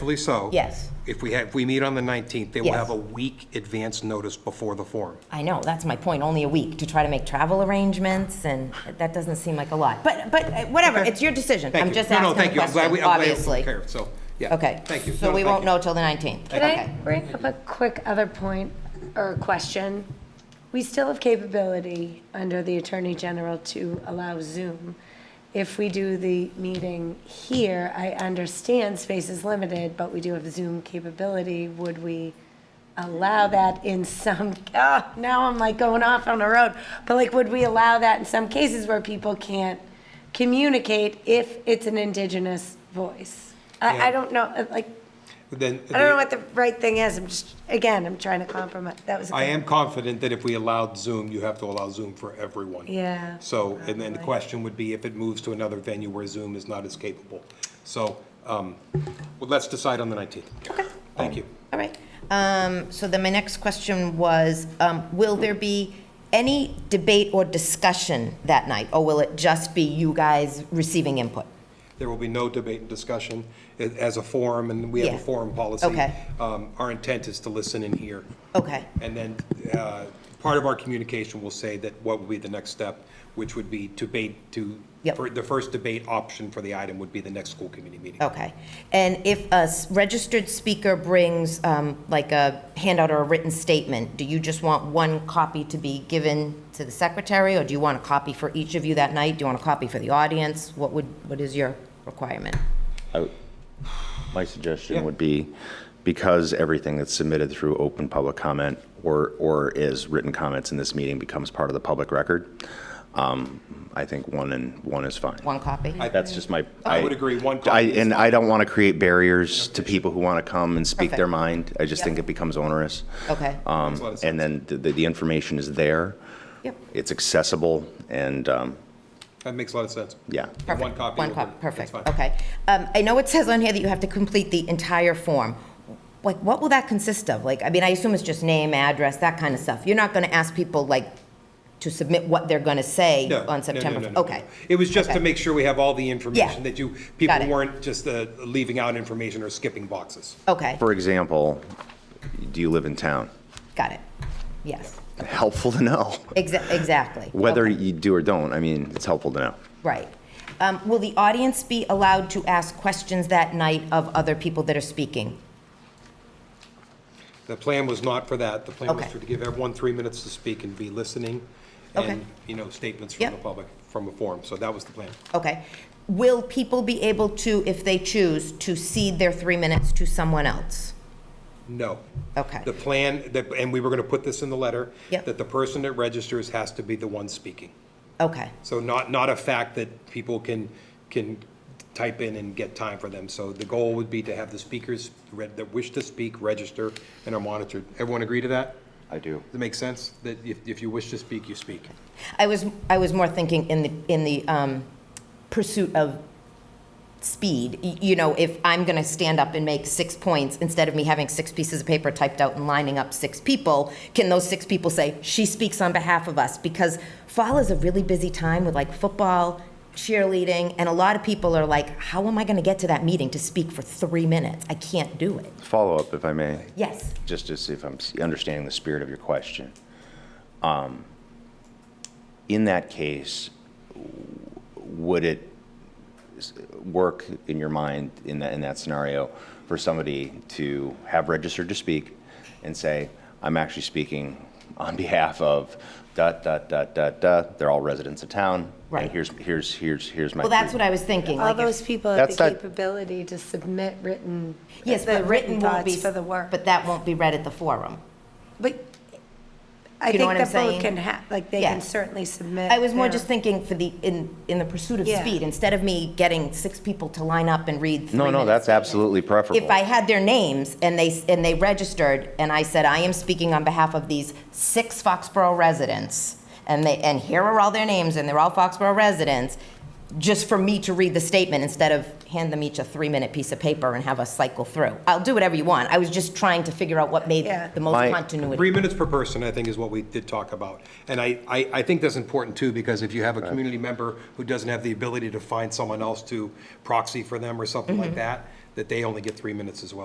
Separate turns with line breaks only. police so.
Yes.
If we have, if we meet on the 19th, they will
Yes.
have a week advance notice before the forum.
I know, that's my point, only a week, to try to make travel arrangements, and that doesn't seem like a lot. But, but, uh, whatever,
Okay.
it's your decision.
Thank
I'm
you.
just
No, no,
asking a
thank you. I'm glad we-
question,
I'm glad it was
obviously.
clear. So, yeah.
Okay.
Thank you.
So
No,
we
thank
won't
you.
know till the 19th.
Can I bring up a quick other point or question? We still have capability under the Attorney General to allow Zoom. If we do the meeting here, I understand space is limited, but we do have Zoom capability. Would we allow that in some, ah, now I'm like going off on a road, but like, would we allow that in some cases where people can't communicate if it's an indigenous voice? I, I don't know, uh, like,
Then,
I don't know what the right thing is. I'm just, again, I'm trying to compromise. That was. a
I
good-
am confident that if we allowed Zoom, you have to allow Zoom for everyone.
Yeah.
So, and then the
Probably.
question would be if it moves to another venue where Zoom is not as capable. So, um, well, let's decide on the 19th.
Okay.
Thank you.
All right. Um, So then my next question was, um, will there be any debate or discussion that night? Or will it just be you guys receiving input?
There will be no debate and discussion a- as a forum, and we have
Yeah.
a forum policy.
Okay.
Um, Our intent is to listen and hear.
Okay.
And then uh, part of our communication will say that what would be the next step, which would be debate to,
Yep.
for the first debate option for the item would be the next school committee meeting.
Okay. And if a s- registered speaker brings um, like a handout or a written statement, do you just want one copy to be given to the secretary? Or do you want a copy for each of you that night? Do you want a copy for the audience? What would, what is your requirement?
I- My suggestion
Yeah.
would be, because everything that's submitted through open public comment or, or is written comments in this meeting becomes part of the public record, um, I think one and, one is fine.
One copy?
That's just my.
I would agree, one copy
I-
is
And I don't want to create barriers to people who want to come and speak their
Perfect.
mind. I just think it becomes onerous.
Okay.
Um,
a lot of
And then the, the information is there.
Yep.
It's accessible and, um,
That makes a lot of sense.
yeah.
Perfect.
One copy.
One
will
copy,
do.
perfect,
That's fine.
okay. Um, I know it says on here that you have to complete the entire form. Like, what will that consist of? Like, I mean, I assume it's just name, address, that kind of stuff. You're not going to ask people, like, to submit what they're going to say
No, no, no,
on September?
no,
f-
no, no.
Okay,
It was just to
Okay.
make sure we have all the information that you,
Got
people
it.
weren't just uh, leaving out information or skipping boxes.
okay,
For example, do you live in town?
got it. Yes,
Helpful to know.
Exa- exactly.
Whether
Okay.
you do or don't, I mean, it's helpful to know.
Right. Um, Will the audience be allowed to ask questions that night of other people that are speaking?
The plan was not for that. The plan was
Okay.
to give everyone three minutes to speak and be listening
Okay.
and, you know, statements from the
Yep.
public, from a forum. So that was the plan.
Okay. Will people be able to, if they choose, to cede their three minutes to someone else?
No.
Okay.
The plan, that- and we were going to put this in the letter,
Yep.
that the person that registers has to be the one speaking.
Okay,
So not, not a fact that people can, can type in and get time for them. So the goal would be to have the speakers read- that wish to speak register and are monitored. Everyone agree to that?
I do.
Does it make sense? That if, if you wish to speak, you speak?
I was, I was more thinking in the, in the um, pursuit of speed. Y- You know, if I'm going to stand up and make six points, instead of me having six pieces of paper typed out and lining up six people, can those six people say, "She speaks on behalf of us"? Because fall is a really busy time with like football, cheerleading, and a lot of people are like, "How am I going to get to that meeting to speak for three minutes? I can't do it."
Follow-up, if I may,
Yes,
just to see if I'm s- understanding the spirit of your question. Um, In that case, w- would it s- work in your mind, in that, in that scenario, for somebody to have registered to speak and say, I'm actually speaking on behalf of dot, dot, dot, dot, dot, they're all residents of town,
Right.
and here's, here's, here's, here's my.
well, that's what I was thinking.
All
like if-
those people have the
That's not-
capability to submit written.
Yes,
the
but written won't be.
thoughts For the work.
But that won't be read at the forum.
But I
You know
think
what I'm
that
saying?
both can have, like, they
Yeah.
can certainly submit.
I was more
their-
just thinking for the, in, in the pursuit of
Yeah.
speed, instead of me getting six people to line up and read three
No, no,
minutes.
that's absolutely preferable.
If I had their names and they, s- and they registered, and I said, I am speaking on behalf of these six Foxborough residents, and they, and here are all their names, and they're all Foxborough residents, just for me to read the statement instead of hand them each a three-minute piece of paper and have us cycle through. I'll do whatever you want. I was just trying to figure out what made
Yeah.
the most
My-
continuity.
Three minutes per person, I think, is what we did talk about. And I, I, I think that's important too, because if you have a community member who doesn't have the ability to find someone else to proxy for them or something like that, that they only get three minutes as well.